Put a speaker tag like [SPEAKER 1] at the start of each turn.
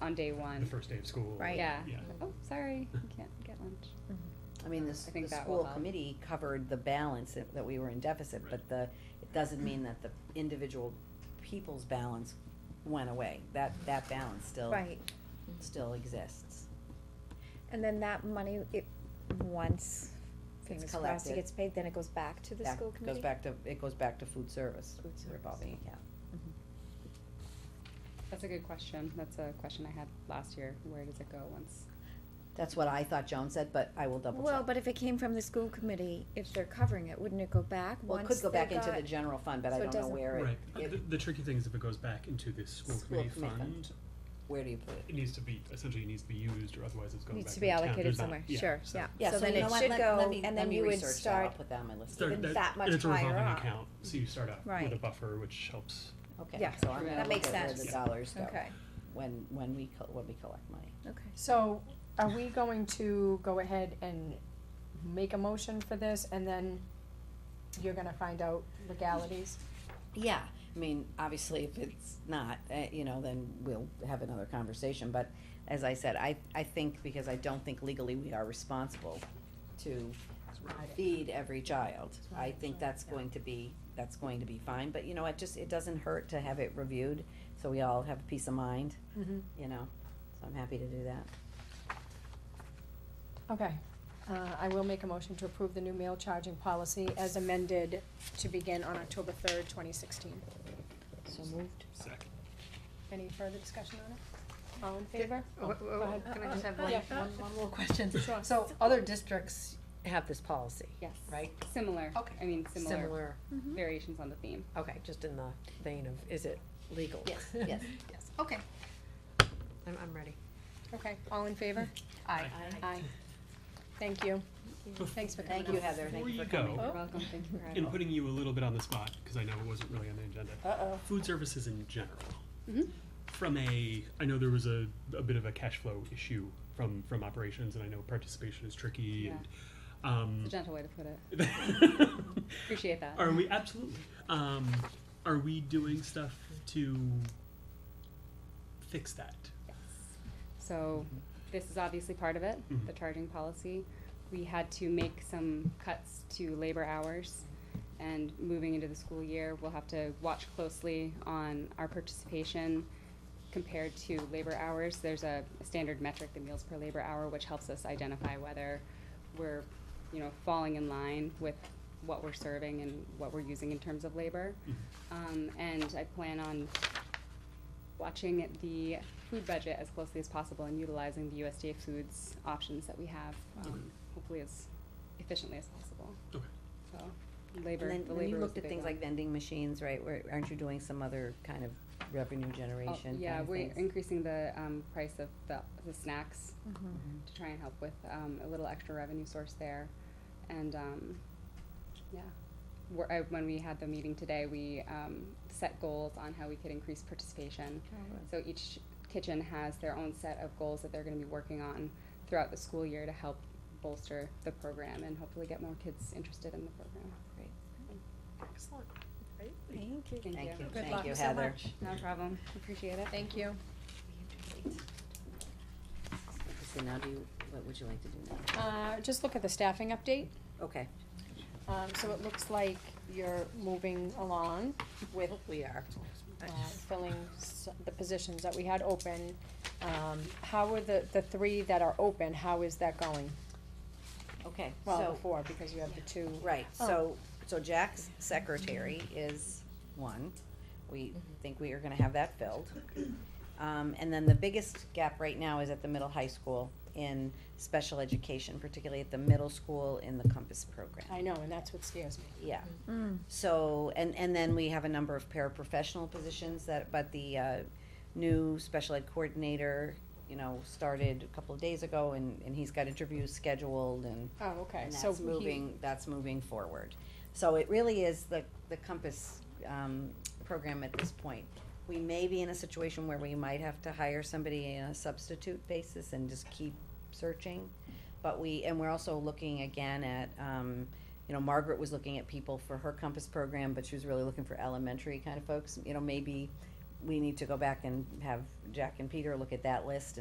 [SPEAKER 1] on day
[SPEAKER 2] the
[SPEAKER 1] one.
[SPEAKER 2] first day of school.
[SPEAKER 3] Right.
[SPEAKER 1] Yeah.
[SPEAKER 2] Yeah.
[SPEAKER 1] Oh, sorry, you can't get lunch.
[SPEAKER 3] Mm-hmm.
[SPEAKER 4] I mean, the, s-
[SPEAKER 1] I
[SPEAKER 4] the
[SPEAKER 1] think that will
[SPEAKER 4] school
[SPEAKER 1] help.
[SPEAKER 4] committee covered the balance that, that we were in deficit, but the, it doesn't mean that the individual people's balance went away. That, that balance still,
[SPEAKER 3] Right,
[SPEAKER 4] still exists.
[SPEAKER 3] and then that money, it, once, fingers crossed,
[SPEAKER 4] collected.
[SPEAKER 3] it gets paid, then it goes back to the
[SPEAKER 4] Back-
[SPEAKER 3] school committee?
[SPEAKER 4] Goes back to, it goes back to food service
[SPEAKER 3] Food service.
[SPEAKER 4] revolving account.
[SPEAKER 1] That's a good question. That's a question I had last year. Where does it go once?
[SPEAKER 4] That's what I thought Joan said, but I will double
[SPEAKER 3] Well,
[SPEAKER 4] check.
[SPEAKER 3] but if it came from the school committee, if they're covering it, wouldn't it go back
[SPEAKER 4] Well,
[SPEAKER 3] once
[SPEAKER 4] it could go
[SPEAKER 3] they
[SPEAKER 4] back into
[SPEAKER 3] got-
[SPEAKER 4] the general fund, but I
[SPEAKER 3] so it
[SPEAKER 4] don't know
[SPEAKER 3] doesn't-
[SPEAKER 4] where it,
[SPEAKER 2] Right, Uh,
[SPEAKER 4] it-
[SPEAKER 2] the, the tricky thing is if it goes back into the school
[SPEAKER 4] School
[SPEAKER 2] committee
[SPEAKER 4] committee fund.
[SPEAKER 2] fund,
[SPEAKER 4] where do you put it?
[SPEAKER 2] it needs to be, essentially it needs to be used or otherwise it's going back
[SPEAKER 3] Needs
[SPEAKER 2] to
[SPEAKER 3] to
[SPEAKER 2] the
[SPEAKER 3] be
[SPEAKER 2] town.
[SPEAKER 3] allocated
[SPEAKER 2] There's not-
[SPEAKER 3] somewhere, sure,
[SPEAKER 2] so
[SPEAKER 3] yeah.
[SPEAKER 4] Yeah,
[SPEAKER 3] So
[SPEAKER 4] so
[SPEAKER 3] then
[SPEAKER 4] you know
[SPEAKER 3] it
[SPEAKER 4] what,
[SPEAKER 3] should
[SPEAKER 4] let,
[SPEAKER 3] go,
[SPEAKER 4] let me,
[SPEAKER 3] and
[SPEAKER 4] let
[SPEAKER 3] then
[SPEAKER 4] me
[SPEAKER 3] you would
[SPEAKER 4] research that, I'll
[SPEAKER 3] start,
[SPEAKER 4] put that on my list.
[SPEAKER 2] Start
[SPEAKER 3] Then that much
[SPEAKER 2] It's a revolving
[SPEAKER 3] higher up.
[SPEAKER 2] account, so you start out with a
[SPEAKER 3] Right.
[SPEAKER 2] buffer, which helps.
[SPEAKER 4] Okay,
[SPEAKER 3] Yeah,
[SPEAKER 4] so I'm
[SPEAKER 1] that
[SPEAKER 4] gonna look
[SPEAKER 3] makes
[SPEAKER 4] at where the
[SPEAKER 3] sense.
[SPEAKER 4] dollars go
[SPEAKER 3] okay,
[SPEAKER 4] when, when we, co- when we collect money.
[SPEAKER 3] okay.
[SPEAKER 5] So, are we going to go ahead and make a motion for this, and then you're gonna find out legalities?
[SPEAKER 4] Yeah, I mean, obviously, if it's not, uh, you know, then we'll have another conversation, but as I said, I, I think, because I don't think legally we are responsible to feed every child. I think that's going to be, that's going to be fine, but you know, it just, it doesn't hurt to have it reviewed, so we all have peace of mind,
[SPEAKER 5] Mhm.
[SPEAKER 4] you know, so I'm happy to do that.
[SPEAKER 5] Okay, uh, I will make a motion to approve the new mail charging policy as amended to begin on October third, twenty sixteen.
[SPEAKER 4] So moved.
[SPEAKER 2] Second.
[SPEAKER 5] Any further discussion on it? All in favor?
[SPEAKER 1] oh,
[SPEAKER 6] Oh, Wha- wha-
[SPEAKER 5] Go ahead.
[SPEAKER 6] Can I just have one,
[SPEAKER 5] Yeah.
[SPEAKER 6] one, one little question?
[SPEAKER 5] Sure.
[SPEAKER 6] So other districts have this policy,
[SPEAKER 1] Yes.
[SPEAKER 6] right?
[SPEAKER 1] Similar.
[SPEAKER 6] Okay.
[SPEAKER 1] I mean, similar
[SPEAKER 6] Similar, Mm-hmm.
[SPEAKER 3] Mm-hmm.
[SPEAKER 1] variations on the theme.
[SPEAKER 6] okay, just in the vein of, is it legal?
[SPEAKER 4] Yes, yes.
[SPEAKER 6] Yes, okay. I'm, I'm ready.
[SPEAKER 5] Okay, all in favor?
[SPEAKER 6] Aye.
[SPEAKER 5] Aye. Thank you. Thanks for coming
[SPEAKER 4] Thank you,
[SPEAKER 5] out.
[SPEAKER 4] Heather, thank you for
[SPEAKER 2] Before you
[SPEAKER 4] coming.
[SPEAKER 2] go,
[SPEAKER 6] Oh.
[SPEAKER 1] You're welcome. Thank you for
[SPEAKER 3] Oh.
[SPEAKER 1] having
[SPEAKER 2] and putting you a little bit on the spot, because I know it wasn't really on the agenda. Uh-oh. Food services in general.
[SPEAKER 3] Mm-hmm.
[SPEAKER 1] Mhm.
[SPEAKER 2] From a, I know there was a, a bit of a cash flow issue from, from operations, and I know participation is tricky
[SPEAKER 1] Yeah.
[SPEAKER 2] and, um.
[SPEAKER 1] It's a gentle way to put it. Appreciate that.
[SPEAKER 2] Are we absolutely? Um, are we doing stuff to fix that?
[SPEAKER 1] So this is obviously part of it,
[SPEAKER 2] Mhm.
[SPEAKER 1] the charging policy. We had to make some cuts to labor hours. And moving into the school year, we'll have to watch closely on our participation compared to labor hours. There's a standard metric, the meals per labor hour, which helps us identify whether we're, you know, falling in line with what we're serving and what we're using in terms of labor. Um, and I plan on watching the food budget as closely as possible and utilizing the USDA foods options that we have, um, hopefully as efficiently as possible.
[SPEAKER 2] Okay.
[SPEAKER 1] So, labor,
[SPEAKER 4] And
[SPEAKER 1] the
[SPEAKER 4] then, when you
[SPEAKER 1] labor was
[SPEAKER 4] looked
[SPEAKER 1] a
[SPEAKER 4] at
[SPEAKER 1] big
[SPEAKER 4] things
[SPEAKER 1] one.
[SPEAKER 4] like vending machines, right, where, aren't you doing some other kind of revenue
[SPEAKER 1] Oh,
[SPEAKER 4] generation
[SPEAKER 1] Yeah,
[SPEAKER 4] kind of
[SPEAKER 1] we're
[SPEAKER 4] things?
[SPEAKER 1] increasing the, um, price of the, the snacks
[SPEAKER 4] Mm-hmm.
[SPEAKER 1] to try and help with, um, a little extra revenue source there. And, um, yeah, we I, when we had the meeting today, we, um, set goals on how we could increase participation. So each kitchen has their own set of goals that they're gonna be working on throughout the school year to help bolster the program and hopefully get more kids interested in the program.
[SPEAKER 6] Excellent.
[SPEAKER 3] Thank you.
[SPEAKER 4] Thank you,
[SPEAKER 5] Good
[SPEAKER 4] thank
[SPEAKER 5] luck
[SPEAKER 4] you,
[SPEAKER 5] so
[SPEAKER 4] Heather.
[SPEAKER 5] much.
[SPEAKER 1] No problem, appreciate it.
[SPEAKER 5] Thank you.
[SPEAKER 4] So now do you, what would you like to do now?
[SPEAKER 5] Uh, just look at the staffing update.
[SPEAKER 4] Okay.
[SPEAKER 5] Um, so it looks like you're moving along with
[SPEAKER 6] We are.
[SPEAKER 5] uh, filling s- the positions that we had open. Um, how are the, the three that are open, how is that going?
[SPEAKER 4] Okay,
[SPEAKER 5] Well,
[SPEAKER 4] so,
[SPEAKER 5] the four, because you have the two.
[SPEAKER 4] right,
[SPEAKER 5] Oh.
[SPEAKER 4] so, so Jack's secretary is one.
[SPEAKER 5] Mm-hmm.
[SPEAKER 4] We think we are gonna have that filled. Um, and then the biggest gap right now is at the middle high school in special education, particularly at the middle school in the Compass program.
[SPEAKER 5] I know, and that's what scares me.
[SPEAKER 4] Yeah. So, and, and then we have a number of paraprofessional positions that, but the, uh, new special ed coordinator, you know, started a couple of days ago and, and he's got interviews scheduled and,
[SPEAKER 5] Oh, okay,
[SPEAKER 4] and
[SPEAKER 5] so
[SPEAKER 4] that's
[SPEAKER 5] he,
[SPEAKER 4] moving, that's moving forward. So it really is the, the Compass, um, program at this point. We may be in a situation where we might have to hire somebody on a substitute basis and just keep searching. But we, and we're also looking again at, um, you know, Margaret was looking at people for her Compass program, but she was really looking for elementary kind of folks. You know, maybe we need to go back and have Jack and Peter look at that list